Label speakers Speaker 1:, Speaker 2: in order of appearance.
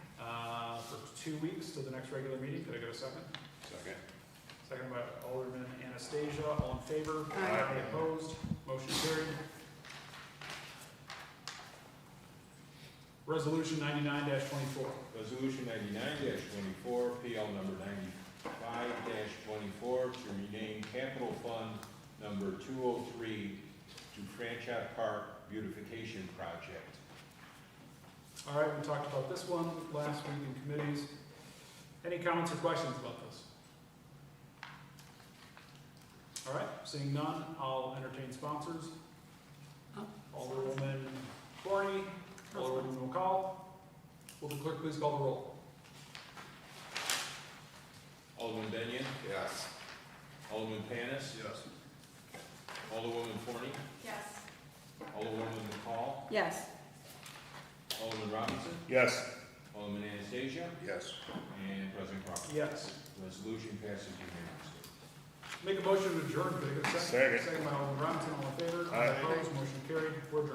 Speaker 1: Uh, two weeks till the next regular meeting. Could I get a second?
Speaker 2: Second.
Speaker 1: Second by Alderman Anastasia, all in favor?
Speaker 2: Aye.
Speaker 1: Any opposed? Motion carried. Resolution ninety-nine twenty-four.
Speaker 2: Resolution ninety-nine twenty-four, PL number ninety-five twenty-four, to rename capital fund number two oh three to Franchot Park Beautification Project.
Speaker 1: All right, we talked about this one last week in committees. Any comments or questions about this? All right, seeing none, I'll entertain sponsors.
Speaker 3: Oh.
Speaker 1: Alderwoman Corney, Alderwoman McCall. Will the clerk please call the roll?
Speaker 2: Alderman Benyon?
Speaker 4: Yes.
Speaker 2: Alderman Panis?
Speaker 4: Yes.
Speaker 2: Alderwoman Forney?
Speaker 3: Yes.
Speaker 2: Alderwoman McCall?
Speaker 3: Yes.
Speaker 2: Alderman Robinson?
Speaker 4: Yes.
Speaker 2: Alderman Anastasia?
Speaker 4: Yes.
Speaker 2: And President Crawford.
Speaker 1: Yes.
Speaker 2: Resolution passes unanimously.
Speaker 1: Make a motion to adjourn, could I get a second?
Speaker 4: Second.
Speaker 1: Second by Alderman Robinson, all in favor?
Speaker 4: Aye.
Speaker 1: Opposed, motion carried, we're adjourned.